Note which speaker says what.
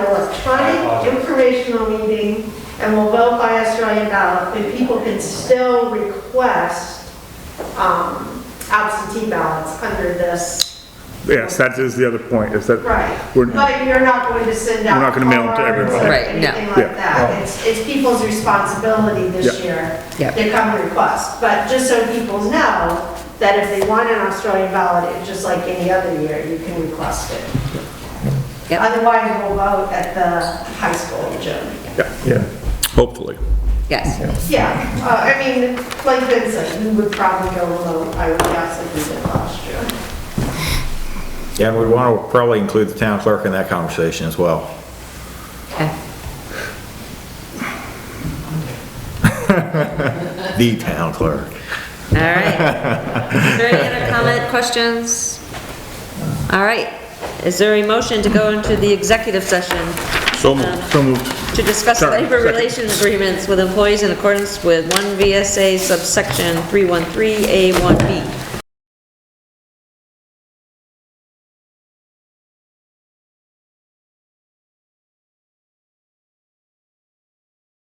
Speaker 1: electronic informational meeting and will vote by Australian ballot, but people can still request um, absentee ballots under this.
Speaker 2: Yes, that is the other point, is that.
Speaker 1: Right.
Speaker 2: we're-
Speaker 1: But you're not going to send out.
Speaker 2: We're not gonna mail them to
Speaker 1: cards
Speaker 2: everybody.
Speaker 1: or
Speaker 3: Right, no.
Speaker 1: Anything
Speaker 2: Yeah.
Speaker 1: like that. It's, it's people's responsibility this
Speaker 2: Yeah.
Speaker 1: year.
Speaker 3: Yeah.
Speaker 1: They come and request, but just so people know that if they want an Australian ballot, it- just like any other year, you can request it.
Speaker 3: Yep.
Speaker 1: Otherwise, we'll vote at the high school in June.
Speaker 2: Yeah, yeah, hopefully.
Speaker 3: Yes,
Speaker 1: Yeah, uh, I mean, like Vincent, we would probably go low, I would guess, if we did last year.
Speaker 4: Yeah, and we'd want to probably include the town clerk in that conversation as well.
Speaker 3: okay.
Speaker 4: The town clerk.
Speaker 3: All right. Is there any other comment, questions? All right. Is there a motion to go into the executive session
Speaker 2: So moved. So moved.
Speaker 3: to discuss
Speaker 2: Sorry,
Speaker 3: labor
Speaker 2: second.
Speaker 3: relations agreements with employees in accordance with 1 VSA subsection 313A1B?